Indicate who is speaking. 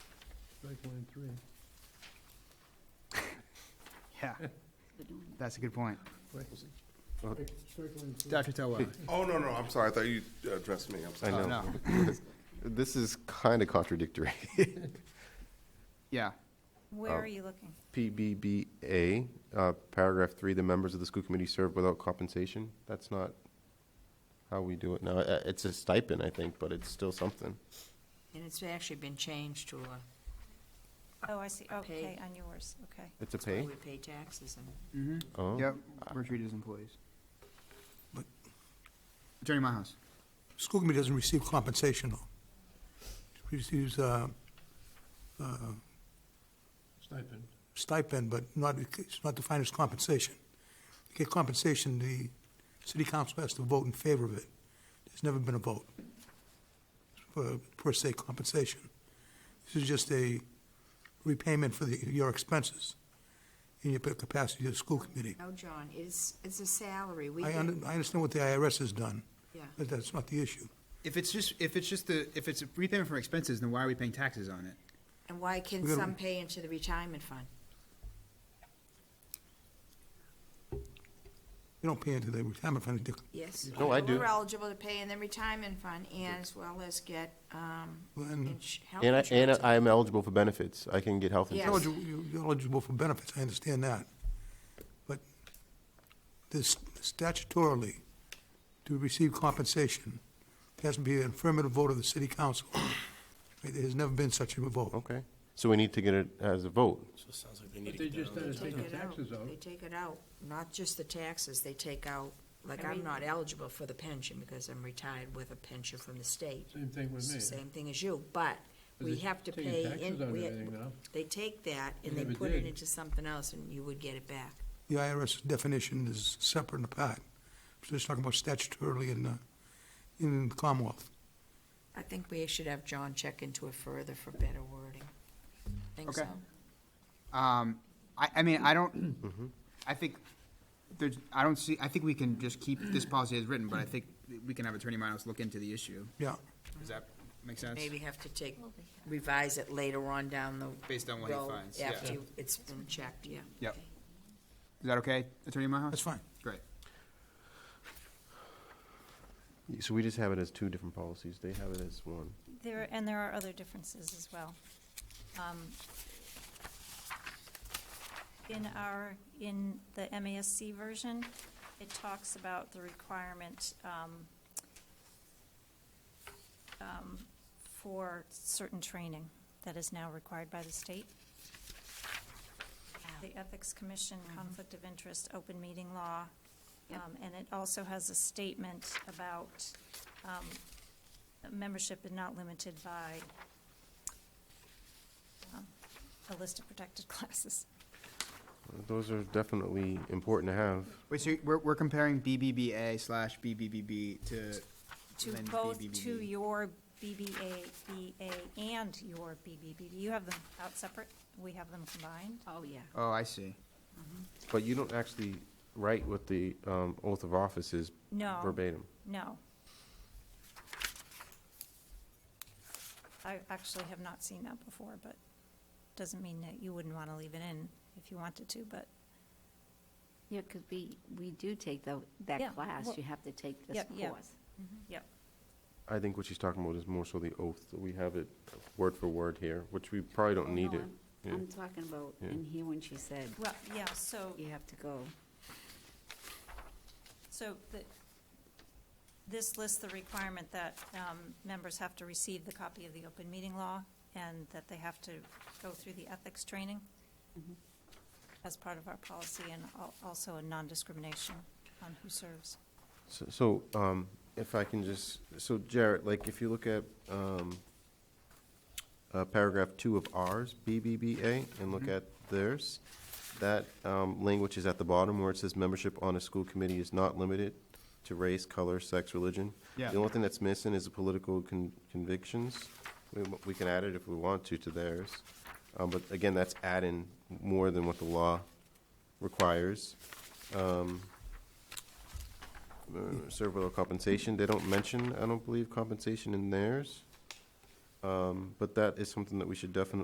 Speaker 1: strike line three.
Speaker 2: Yeah, that's a good point.
Speaker 1: Strike- Strike line three.
Speaker 2: Dr. Tawala?
Speaker 3: Oh, no, no, I'm sorry. I thought you addressed me. I'm
Speaker 4: I
Speaker 3: sorry.
Speaker 4: know.
Speaker 2: Oh, No,
Speaker 4: This is kind of contradictory.
Speaker 2: yeah,
Speaker 4: Oh.
Speaker 5: Where are you looking?
Speaker 4: PBBA, uh, paragraph three, the members of the school committee serve without compensation. That's not how we do it now. Uh, It's a stipend, I think, but it's still something.
Speaker 6: And it's actually been changed to uh, a,
Speaker 5: Oh, I see, okay,
Speaker 6: Pay.
Speaker 5: on yours, okay.
Speaker 4: It's a
Speaker 6: where
Speaker 4: pay?
Speaker 6: we pay taxes and.
Speaker 2: mm-hmm,
Speaker 4: Oh,
Speaker 2: yep, we're treated as employees. Attorney Myhouse?
Speaker 7: School committee doesn't receive compensation, though. It Receives uh, uh,
Speaker 1: Stipend.
Speaker 7: stipend, but not, it's not defined as compensation. To get compensation, the city council has to vote in favor of it. There's never been a vote for, per se, compensation. This is just a repayment for the, your expenses in your capacity as a school committee.
Speaker 6: No, John, it's, it's a salary. We
Speaker 7: I
Speaker 6: get-
Speaker 7: under- I understand what the IRS has done,
Speaker 6: Yeah.
Speaker 7: but that's not the issue.
Speaker 2: If it's just, if it's just the, if it's a repayment from expenses, then why are we paying taxes on it?
Speaker 6: And why can
Speaker 7: We gotta-
Speaker 6: some pay into the retirement fund?
Speaker 7: They don't pay into the retirement fund, they
Speaker 6: Yes.
Speaker 4: No, I do.
Speaker 6: We're eligible to pay in the retirement fund and as well as get, um,
Speaker 7: And
Speaker 6: ins- health
Speaker 4: And I,
Speaker 6: insurance.
Speaker 4: and I am eligible for benefits. I can get health
Speaker 6: Yes.
Speaker 4: insurance.
Speaker 7: eligible, you're eligible for benefits, I understand that. But this statutorily, to receive compensation, there has to be an affirmative vote of the city council. There has never been such a vote.
Speaker 4: Okay, so we need to get it as a vote.
Speaker 1: But they just done is
Speaker 6: Take
Speaker 1: taking
Speaker 6: it out.
Speaker 1: taxes out.
Speaker 6: They take it out, not just the taxes, they take out, like,
Speaker 5: Every-
Speaker 6: I'm not eligible for the pension because I'm retired with a pension from the state.
Speaker 1: Same thing with me.
Speaker 6: Same thing as you, but
Speaker 1: But
Speaker 6: we
Speaker 1: they're
Speaker 6: have to
Speaker 1: taking
Speaker 6: pay.
Speaker 1: taxes
Speaker 6: in-
Speaker 1: on
Speaker 6: we-
Speaker 1: everything now.
Speaker 6: They take that and
Speaker 1: They
Speaker 6: they
Speaker 1: never
Speaker 6: put it
Speaker 1: did.
Speaker 6: into something else and you would get it back.
Speaker 7: The IRS definition is separate and apart. So it's talking about statutorily in, uh, in Commonwealth.
Speaker 6: I think we should have John check into it further for better wording. Think
Speaker 2: Okay.
Speaker 6: so?
Speaker 2: Um, I, I mean, I don't,
Speaker 4: Mm-hmm.
Speaker 2: I think there's, I don't see, I think we can just keep this policy as written, but I think we can have Attorney Myhouse look into the issue.
Speaker 7: Yeah,
Speaker 2: Does that make sense?
Speaker 6: Maybe have to take, revise it later on down the.
Speaker 2: Based on what he
Speaker 6: road
Speaker 2: finds, yeah.
Speaker 6: After you- it's been checked, yeah.
Speaker 2: Yep. Is that okay, Attorney Myhouse?
Speaker 7: that's fine.
Speaker 2: Great.
Speaker 4: So we just have it as two different policies. They have it as one.
Speaker 5: There, and there are other differences as well. Um, In our, in the MASC version, it talks about the requirement um, um, for certain training that is now required by the state. The Ethics Commission, Conflict of Interest, Open Meeting Law, um, and it also has a statement about membership is not limited by um, a list of protected classes.
Speaker 4: Those are definitely important to have.
Speaker 2: Wait, so we're, we're comparing BBBA slash BBBB to
Speaker 5: To
Speaker 2: Lynn
Speaker 5: both, to
Speaker 2: BBBB.
Speaker 5: your BBA, BA, and your BBBB. You have them out separate, we have them combined.
Speaker 6: Oh, yeah.
Speaker 2: Oh, I see.
Speaker 4: But you don't actually write what the um, oath of office is
Speaker 5: No.
Speaker 4: verbatim.
Speaker 5: No. I actually have not seen that before, but doesn't mean that you wouldn't want to leave it in if you wanted to, but
Speaker 8: Yeah, because we, we do take tho-
Speaker 5: Yeah,
Speaker 8: that class,
Speaker 5: well-
Speaker 8: you have to take this
Speaker 5: Yeah, yeah.
Speaker 8: course.
Speaker 4: I think what she's talking about is more so the oath. We have it word for word here, which we probably don't need
Speaker 8: Oh, No,
Speaker 4: it.
Speaker 8: I'm-
Speaker 4: Yeah.
Speaker 8: I'm talking about
Speaker 4: Yeah.
Speaker 8: in here when she said,
Speaker 5: Well, yeah, so,
Speaker 8: you have to go.
Speaker 5: so the, this lists the requirement that um, members have to receive the copy of the open meeting law and that they have to go through the ethics training as part of our policy and al- also a non-discrimination on who serves.
Speaker 4: So- So, um, if I can just, so Jarrett, like, if you look at, um, uh, paragraph two of ours, BBBA, and look at theirs, that, um, language is at the bottom where it says membership on a school committee is not limited to race, color, sex, religion.
Speaker 2: Yeah.
Speaker 4: The only thing that's missing is the political con- convictions. We, we can add it if we want to to theirs. Um, but again, that's adding more than what the law requires. Um, uh, serve without compensation. They don't mention, I don't believe, compensation in theirs. Um, But that is something that we should definitely